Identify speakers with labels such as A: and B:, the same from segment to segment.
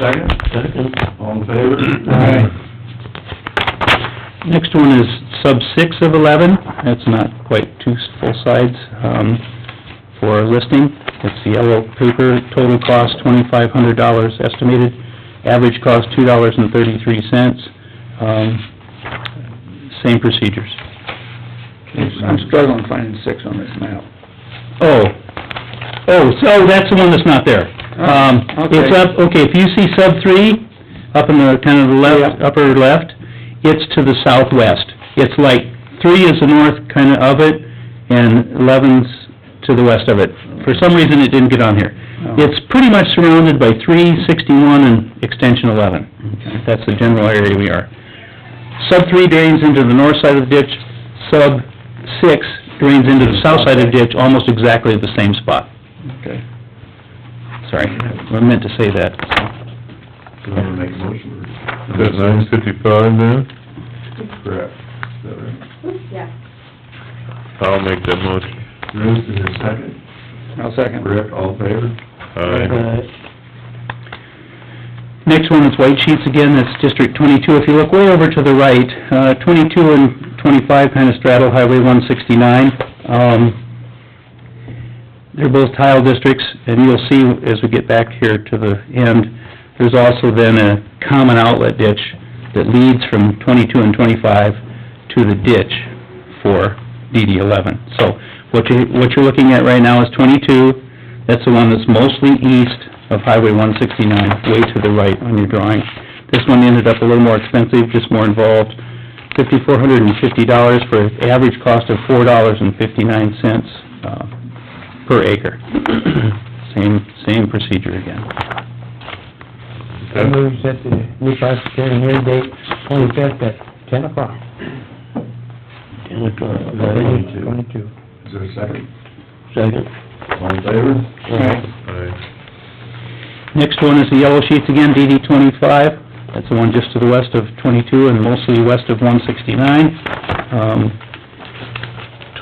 A: Second?
B: Second.
A: All in favor?
B: Next one is sub six of eleven, that's not quite two full sides, um, for listing. It's the yellow paper, total cost twenty-five hundred dollars estimated, average cost two dollars and thirty-three cents, um, same procedures.
C: I'm struggling finding six on this map.
B: Oh, oh, so that's the one that's not there. Um,
C: Oh, okay.
B: it's up, okay, if you see sub three, up in the, kind of the left, upper left, it's to the southwest. It's like, three is the north kind of of it, and eleven's to the west of it. For some reason, it didn't get on here.
C: Oh.
B: It's pretty much surrounded by three, sixty-one, and extension eleven.
C: Okay.
B: That's the general area we are. Sub three drains into the north side of the ditch, sub six drains into the south side of the ditch, almost exactly the same spot.
C: Okay.
B: Sorry, I meant to say that.
A: Do you want to make a motion?
D: Is that nine fifty-five then?
A: Correct. Is that right?
E: Yeah.
D: I'll make that motion.
A: Bruce, is there a second?
C: I'll second.
A: Rick, all in favor?
D: Aye.
B: Next one is white sheets again, that's District twenty-two. If you look way over to the right, uh, twenty-two and twenty-five kind of straddle Highway one sixty-nine. Um, they're both tile districts, and you'll see as we get back here to the end, there's also then a common outlet ditch that leads from twenty-two and twenty-five to the ditch for DD eleven. So what you, what you're looking at right now is twenty-two, that's the one that's mostly east of Highway one sixty-nine, way to the right on your drawing. This one ended up a little more expensive, just more involved, fifty-four hundred and fifty dollars for an average cost of four dollars and fifty-nine cents, uh, per acre. Same, same procedure again.
F: I move that the reclassification hearing date, twenty-fifth at ten o'clock.
B: Ten o'clock.
A: Twenty-two.
F: Twenty-two.
A: Is there a second?
B: Second.
A: All in favor?
D: Aye.
B: Next one is the yellow sheets again, DD twenty-five. That's the one just to the west of twenty-two and mostly west of one sixty-nine. Um,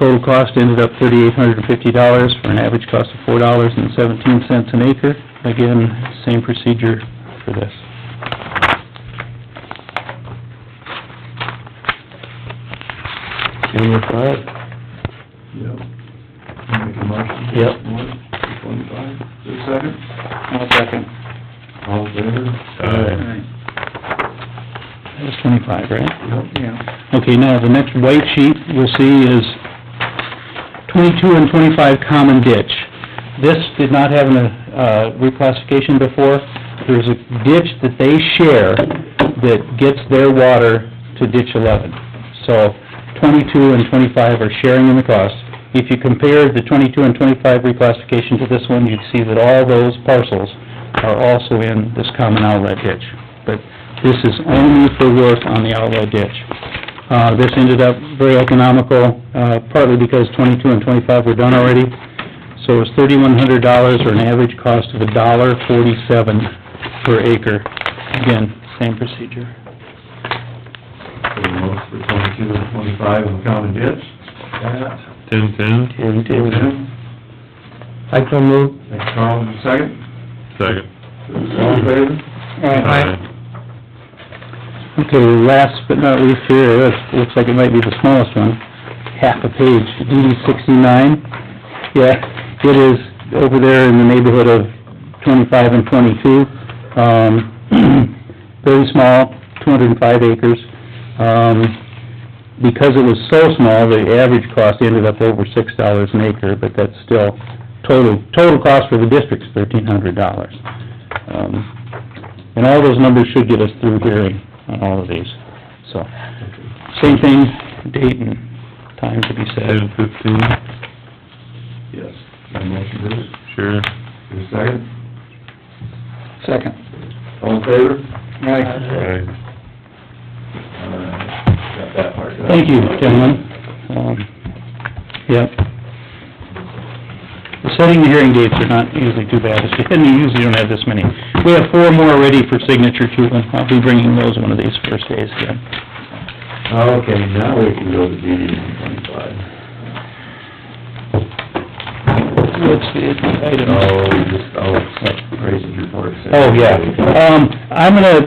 B: total cost ended up thirty-eight hundred and fifty dollars for an average cost of four dollars and seventeen cents an acre. Again, same procedure for this.
A: Yep. Make a motion?
B: Yep.
A: One, twenty-five, is there a
C: I'll second.
A: second? All in favor?
D: Aye.
C: Right.
B: That was twenty-five, right?
A: Yep.
C: Yeah.
B: Okay, now, the next white sheet you'll see is twenty-two and twenty-five common ditch. This did not have a, uh, reclassification before. There's a ditch that they share that gets their water to ditch eleven. So twenty-two and twenty-five are sharing in the cost. If you compare the twenty-two and twenty-five reclassification to this one, you'd see that all those parcels are also in this common outlet ditch. But this is only for work on the outlet ditch. Uh, this ended up very economical, uh, partly because twenty-two and twenty-five were done already. So it was thirty-one hundred dollars or an average cost of a dollar forty-seven per acre. Again, same procedure.
A: For the motion for twenty-two and twenty-five on the common ditch? That.
D: Ten-ten?
F: I so move.
A: Thanks, Carl, is there a second?
D: Second.
A: All in favor?
B: Okay, last but not least here, it looks like it might be the smallest one, half a page, DD sixty-nine. Yeah, it is over there in the neighborhood of twenty-five and twenty-two. Um, very small, two hundred and five acres. Um, because it was so small, the average cost ended up over six dollars an acre, but that's still, total, total cost for the district's thirteen hundred dollars. Um, And all those numbers should get us through hearing on all of these, so. Same thing, date and time to be said.
D: Ten-fifteen,
A: Yes. Got a motion, Bruce? Is
D: sure.
A: there a second?
C: Second.
A: All in favor?
C: Right.
D: Aye.
A: Alright, got that part done.
B: Thank you, gentlemen. Um, Yep. The setting the hearing dates are not usually too bad, It's- and you usually don't have this many. We have four more ready for signature, too, and I'll be bringing those one of these first days, yeah.
A: Okay, now we can go to DD one twenty-five.
C: What's the item?
A: Oh, just, oh, Grayson's report.
B: Oh, yeah. Um, I'm gonna